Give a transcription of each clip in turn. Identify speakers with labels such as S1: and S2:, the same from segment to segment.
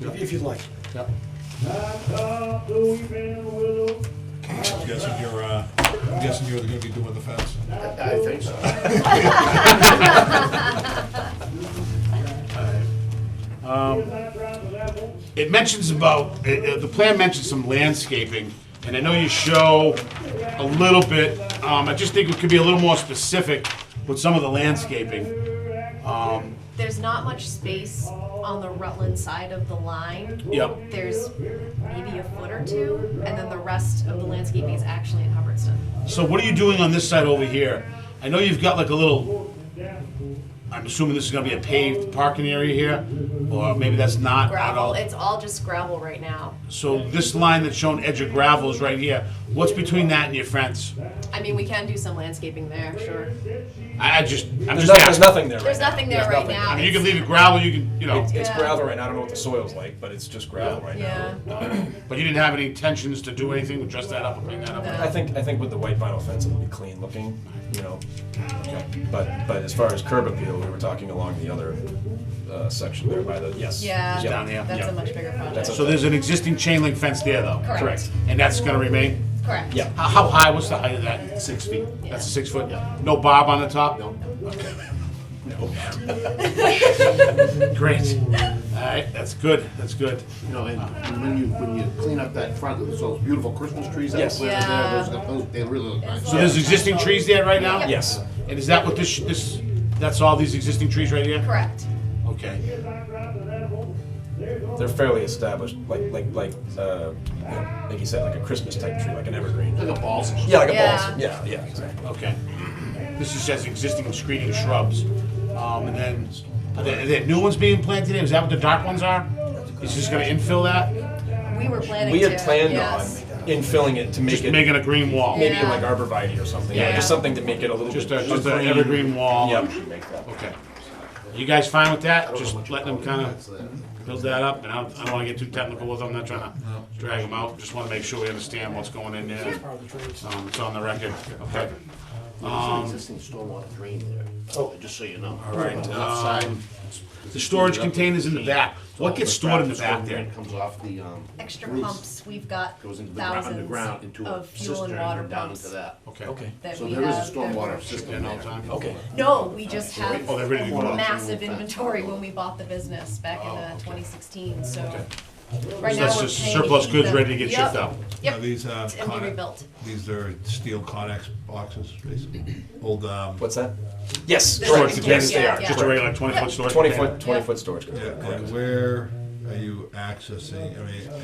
S1: if if you'd like.
S2: Yeah.
S3: I'm guessing you're, uh, I'm guessing you're gonna be doing the fence.
S4: I think so. It mentions about, uh, uh, the plan mentions some landscaping, and I know you show a little bit, um, I just think it could be a little more specific with some of the landscaping. Um,
S5: There's not much space on the Rutland side of the line.
S4: Yep.
S5: There's maybe a foot or two, and then the rest of the landscaping is actually in Hubbardston.
S4: So what are you doing on this side over here? I know you've got like a little, I'm assuming this is gonna be a paved parking area here, or maybe that's not at
S5: Gravel,
S4: all.
S5: it's all just gravel right now.
S4: So this line that's shown edge of gravel is right here. What's between that and your fence?
S5: I mean, we can do some landscaping there, sure.
S4: I, I just, I'm just
S2: There's no- there's
S4: asking.
S2: nothing there right
S5: There's
S2: now.
S5: nothing there
S2: There's
S5: right
S2: nothing.
S5: now.
S4: I mean, you can leave it gravel, you can, you know,
S2: It's
S5: Yeah.
S2: gravel right now, I don't know what the soil's like, but it's just gravel right now.
S5: Yeah,
S4: but you didn't have any intentions to do anything, to dress that up or clean that up?
S5: No.
S2: I think, I think with the white vinyl fence, it'll be clean looking, you know? But, but as far as curb appeal, we were talking along the other, uh, section there by the, yes.
S5: yeah.
S4: down there,
S5: That's
S4: yeah.
S5: a much bigger project.
S2: That's a-
S4: So there's an existing chain link fence there though?
S5: Correct. Correct.
S4: And that's gonna remain?
S5: Correct.
S2: Yeah.
S4: How, how high, what's the height of that? Six feet?
S5: Yeah.
S4: That's a six foot? No bob on the top? No. Great. All right, that's good, that's good.
S6: You know, and when you, when you clean up that front, there's those beautiful Christmas trees that
S2: Yes.
S6: are planted
S5: Yeah.
S6: there, those, are- those, they really look nice.
S4: So there's existing trees there right now?
S5: Yep.
S2: Yes,
S4: And is that what this, this, that's all these existing trees right here?
S5: Correct.
S4: Okay.
S2: they're fairly established, like, like, like, uh, you know, like you said, like a Christmas type tree, like an evergreen.
S6: Like a balsam.
S2: Yeah, like a
S5: Yeah.
S2: balsam, yeah, yeah, exactly.
S4: Okay. This is just existing screening shrubs. Um, and then, are there, are there new ones being planted in? Is that what the dark ones are? Is this gonna infill that?
S5: We were planning to.
S2: We had planned on
S5: yes.
S2: infilling it to make
S4: Just
S2: it
S4: making a green wall?
S2: maybe
S5: Yeah.
S2: like arborvitae or something,
S4: Yeah.
S2: yeah, just something to make it a little
S4: Just
S2: bit.
S4: a, just an
S2: green.
S4: evergreen wall?
S2: Yep.
S4: Okay. You guys fine with that? Just letting them kinda build that up? And I don't, I don't wanna get too technical with them, I'm not trying to drag them out. Just wanna make sure we understand what's going in there. Um, it's on the record, okay?
S6: There's an existing stormwater drain there, Oh, just so you know. All Uh,
S4: right,
S6: On the left
S4: um,
S6: side.
S4: The storage containers in the back, what gets stored in the back there?
S6: It Comes off the, um.
S5: Extra
S6: roof,
S5: pumps, we've got
S6: Goes into the ground, underground,
S5: thousands
S6: into a
S5: of fuel
S6: cistern
S5: and water
S6: and down
S5: pumps
S6: into that.
S4: Okay.
S2: Okay,
S5: that
S6: So
S5: we
S6: there is a
S5: have that
S6: stormwater
S5: we're-
S6: system
S4: all
S6: there.
S4: time?
S2: okay.
S5: No, we just have
S4: Oh, they're ready to go out.
S5: massive inventory when we bought the business back in uh, 2016, so. Right
S4: So
S5: now,
S4: that's
S5: we're
S4: just
S5: paying to
S4: surplus
S5: keep
S4: goods
S5: them.
S4: ready to get shipped
S5: Yep,
S4: out.
S3: Now,
S5: Yep,
S3: These, uh,
S5: and be
S3: Connex-
S5: rebuilt.
S3: these are steel Conex boxes, basically, old, um,
S2: What's that? Yes,
S4: Storage
S2: correct,
S4: containers,
S2: yes,
S5: yeah,
S2: they are.
S5: yeah.
S4: just a regular twenty foot storage.
S2: Twenty
S4: container?
S2: foot, twenty foot storage.
S3: yeah,
S2: container, correct.
S3: and where are you accessing, I mean, like,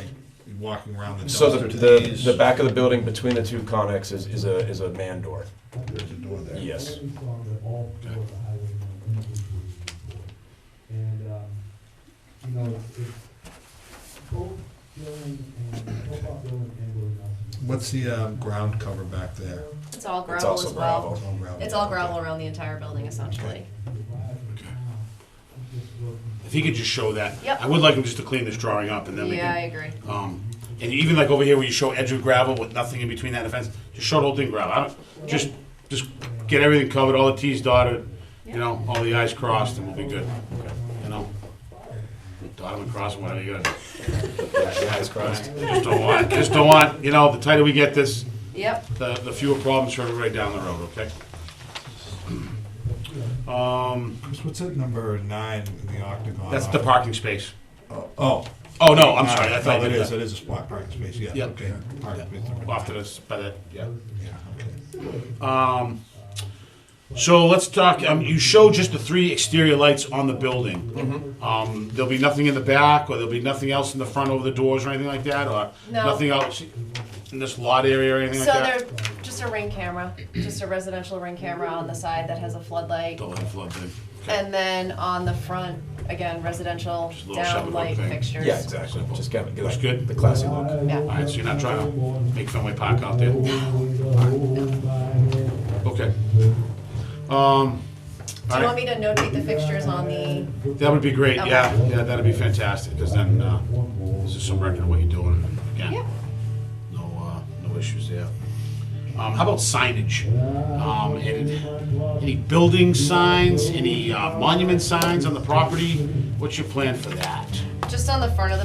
S3: you walking around the
S2: So the,
S3: dumpster to
S2: the,
S3: these?
S2: the back of the building between the two connexes is, is a, is a man door,
S3: There's a door there.
S2: yes.
S7: And, um, you know, if, if both building and, both our building and building else.
S3: What's the, um, ground cover back there?
S5: It's all
S2: It's
S5: gravel
S2: also
S5: as well.
S2: gravel.
S3: All gravel.
S5: It's all gravel around the entire building essentially.
S4: If he could just show that.
S5: Yep.
S4: I would like him just to clean this drawing up and then we
S5: Yeah, I
S4: can,
S5: agree.
S4: um, and even like over here where you show edge of gravel with nothing in between that and the fence, just show the whole thing gravel. I don't, just, just get everything covered, all the Ts dotted, you know, all the Is crossed and we'll be good, you know? Dot them and cross them, whatever you gotta do.
S2: Eyes crossed.
S4: Just don't want, just don't want, you know, the tighter we get this,
S5: Yep,
S4: the, the fewer problems for everybody down the road, okay? Um,
S3: Chris, what's that number nine in the octagon?
S4: that's the
S3: off-
S4: parking space.
S3: Oh.
S4: Oh, no, I'm sorry, I
S3: that's
S4: thought
S3: all
S4: it
S3: it is,
S4: is.
S3: it is a spot parking space, yeah,
S4: Yep.
S3: okay. Parking space number nine.
S4: Off to this, by that, yeah.
S3: Yeah, okay.
S4: Um, so let's talk, um, you show just the three exterior lights on the building. Um, there'll be nothing in the back, or there'll be nothing else in the front over the doors or anything like that, or
S5: No.
S4: nothing else in this lot area or anything
S5: so
S4: like that?
S5: there's just a ring camera, just a residential ring camera on the side that has a floodlight.
S4: Don't let it flood in.
S5: And then on the front, again, residential
S4: a little separate
S5: down light
S4: thing.
S5: fixtures.
S2: Yeah, exactly, just kind of get
S4: Looks
S2: like
S4: good.
S2: the classy look.
S4: All
S5: Yeah.
S4: right, so you're not trying to make Fenway Park out there? Okay. Um, all
S5: Do you want
S4: right,
S5: me to notate the fixtures on the,
S4: that would be great,
S5: Okay.
S4: yeah, yeah, that'd be fantastic, because then, uh, there's just some record of what you're doing, and
S5: yeah,
S4: again, no, uh, no issues there. Um, how about signage? Um, any, any building signs, any uh, monument signs on the property? What's your plan for that?
S5: just on the front of the